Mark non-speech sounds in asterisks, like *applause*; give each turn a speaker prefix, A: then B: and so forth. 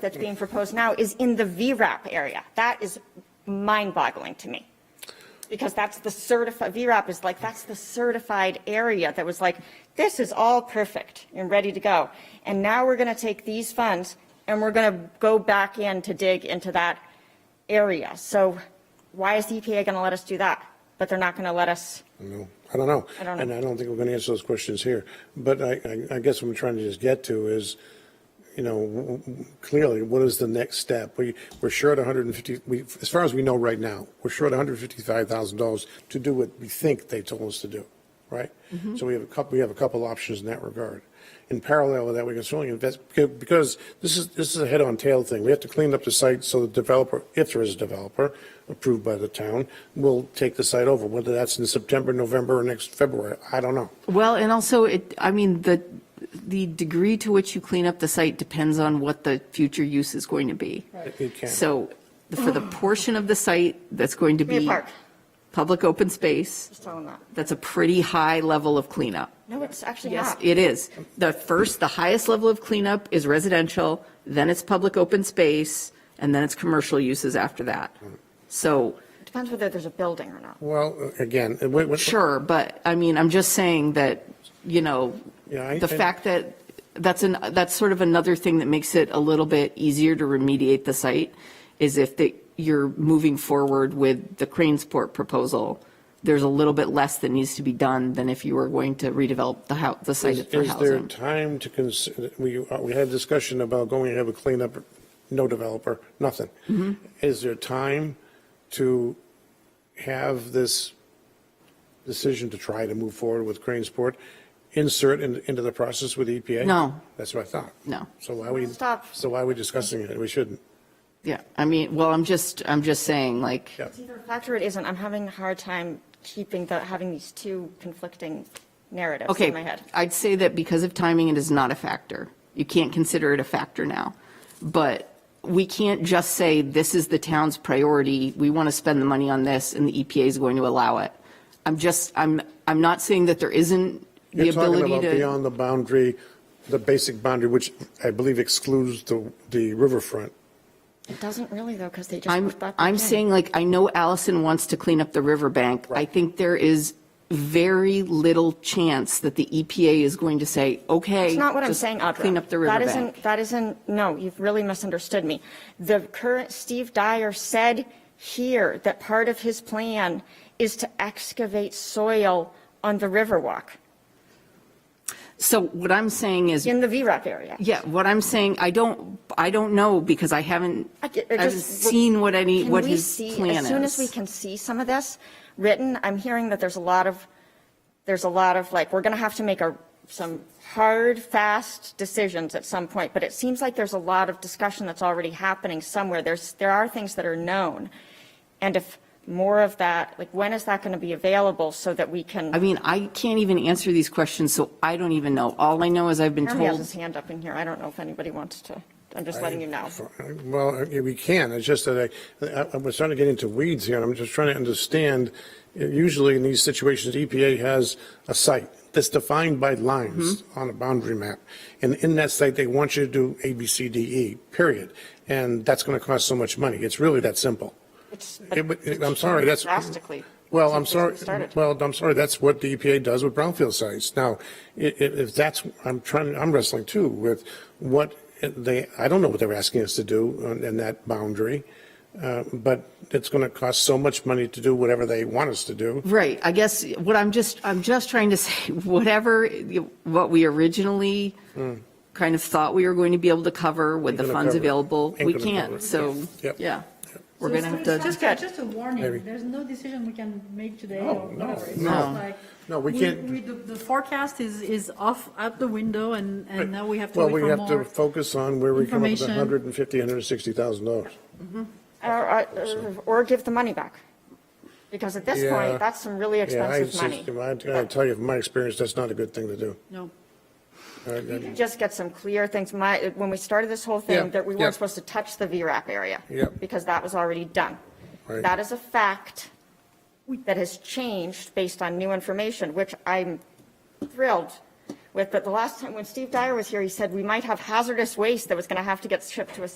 A: that's being proposed now is in the VRAP area. That is mind-boggling to me. Because that's the certified, VRAP is like, that's the certified area that was like, this is all perfect and ready to go. And now we're going to take these funds and we're going to go back in to dig into that area. So why is the E EPA going to let us do that? But they're not going to let us,
B: No, I don't know.
A: I don't know.
B: And I don't think we're going to answer those questions here. But I, I- I guess what I'm trying to just get to is, you know, w- w- clearly, what is the next step? We, we're short 150, we, as far as we know right now, we're short $155,000 to do what we think they told us to do, right?
C: Mm-hmm.
B: So we have a couple, we have a couple options in that regard. In parallel with that, we can certainly invest, becau- because this is, this is a head-on tail thing. We have to clean up the site so the developer, if there is a developer approved by the town, will take the site over, whether that's in September, November, or next February, I don't know.
C: Well, and also it, I mean, the, the degree to which you clean up the site depends on what the future use is going to be.
B: It can.
C: So for the portion of the site that's going to
A: Give me a
C: be
A: park.
C: public open space,
A: just tell them that.
C: that's a pretty high level of cleanup.
A: No, it's actually
C: Yes,
A: not.
C: it is. The first, the highest level of cleanup is residential, then it's public open space, and then it's commercial uses after that. So,
A: Depends whether there's a building or not.
B: Well, again, and wait, wait-
C: sure, but I mean, I'm just saying that, you know,
B: Yeah, I-
C: the
B: I-
C: fact that, that's an, that's sort of another thing that makes it a little bit easier to remediate the site, is if the, you're moving forward with the Cranesport proposal, there's a little bit less that needs to be done than if you were going to redevelop the house, the
B: Is
C: site for
B: is there
C: housing.
B: time to consider, we, uh, we had discussion about going and have a cleanup, no developer, nothing.
C: Mm-hmm.
B: Is there time to have this decision to try to move forward with Cranesport insert in- into the process with EPA?
C: No.
B: That's what I thought.
C: No.
B: So why are we,
A: Stop.
B: so why are we discussing it? We shouldn't.
C: Yeah, I mean, well, I'm just, I'm just saying, like,
B: Yeah.
A: It's either a fact or it isn't. I'm having a hard time keeping the, having these two conflicting narratives in my
C: okay,
A: head.
C: I'd say that because of timing, it is not a factor. You can't consider it a factor now. But we can't just say, this is the town's priority, we want to spend the money on this, and the EPA is going to allow it. I'm just, I'm, I'm not saying that there isn't the
B: You're talking
C: ability
B: about
C: to,
B: beyond the boundary, the basic boundary, which I believe excludes the, the riverfront.
A: It doesn't really though, because they just.
C: I'm,
A: put that
C: I'm
A: in.
C: saying, like, I know Allison wants to clean up the riverbank. I think there is very little chance that the EPA is going to say, okay.
A: It's not what I'm
C: just
A: saying, Audra.
C: Clean up the
A: That
C: riverbank.
A: isn't, that isn't, no, you've really misunderstood me. The current, Steve Dyer said here that part of his plan is to excavate soil on the Riverwalk
C: So what I'm saying is,
A: in the VRAP area.
C: yeah, what I'm saying, I don't, I don't know because I haven't,
A: I
C: I
A: get- I
C: haven't
A: just-
C: seen what any,
A: Can
C: what
A: we
C: his
A: see-
C: plan
A: As soon as we
C: is.
A: can see some of this written, I'm hearing that there's a lot of, there's a lot of, like, we're going to have to make a, some hard, fast decisions at some point, but it seems like there's a lot of discussion that's already happening somewhere. There's, there are things that are known. And if more of that, like, when is that going to be available so that we
C: I
A: can,
C: mean, I can't even answer these questions, so I don't even know. All I know is I've been
A: Jeremy has
C: told,
A: his hand up in here. I don't know if anybody wants to, I'm just letting you know.
B: Well, yeah, we can, it's just that I, I- I'm starting to get into weeds here, and I'm just trying to understand, usually in these situations, EPA has a site that's defined by lines
A: Mm-hmm.
B: on a boundary map, and in that site, they want you to do A, B, C, D, E, period, and that's going to cost so much money, it's really that simple.
A: It's-
B: It would- it- I'm sorry, that's.
A: Drastically.
B: Well, I'm
A: since we
B: sorry,
A: E started.
B: well, I'm sorry, that's what the EPA does with brownfield sites. Now, if, if that's, I'm trying, I'm wrestling too with what they, I don't know what they're asking us to do on- in that boundary, uh, but it's going to cost so much money to do whatever they want us to do.
C: right, I guess what I'm just, I'm just trying to *laughs* say, whatever, you- what we originally kind of thought we were going to be able to cover with the
B: Hmm. gonna
C: funds
B: cover it.
C: available,
B: Ain't
C: we
B: gonna cover
C: can't,
B: it.
C: so,
B: Yep.
C: yeah. We're
D: So
C: going to have
D: it's
C: to.
D: not- it's not Just a
B: Maybe.
D: warning, there's no decision we can make today
B: No,
D: or
B: no,
D: whatever. It's
B: no.
D: just like
B: No, we can't-
D: we- The the forecast is, is off, out the window, and, and now we have to
B: Well,
D: wait
B: we
D: for
B: have to
D: more.
B: focus on where we come up with
D: information.
B: 150, 160,000 dollars.
A: Or, or- or give the money back. Because at this
B: Yeah.
A: point, that's some really
B: Yeah, I,
A: expensive money.
B: I tell you, from my experience, that's not a good thing to do.
D: No.
B: I- I-
A: Just get some clear things. My, when we started this whole
B: Yeah,
A: thing, that we
B: yeah.
A: weren't supposed to touch the VRAP area.
B: Yeah.
A: Because that was already done.
B: Right.
A: That is a fact that has changed based on new information, which I'm thrilled with. But the last time, when Steve Dyer was here, he said we might have hazardous waste that was going to have to get shipped to a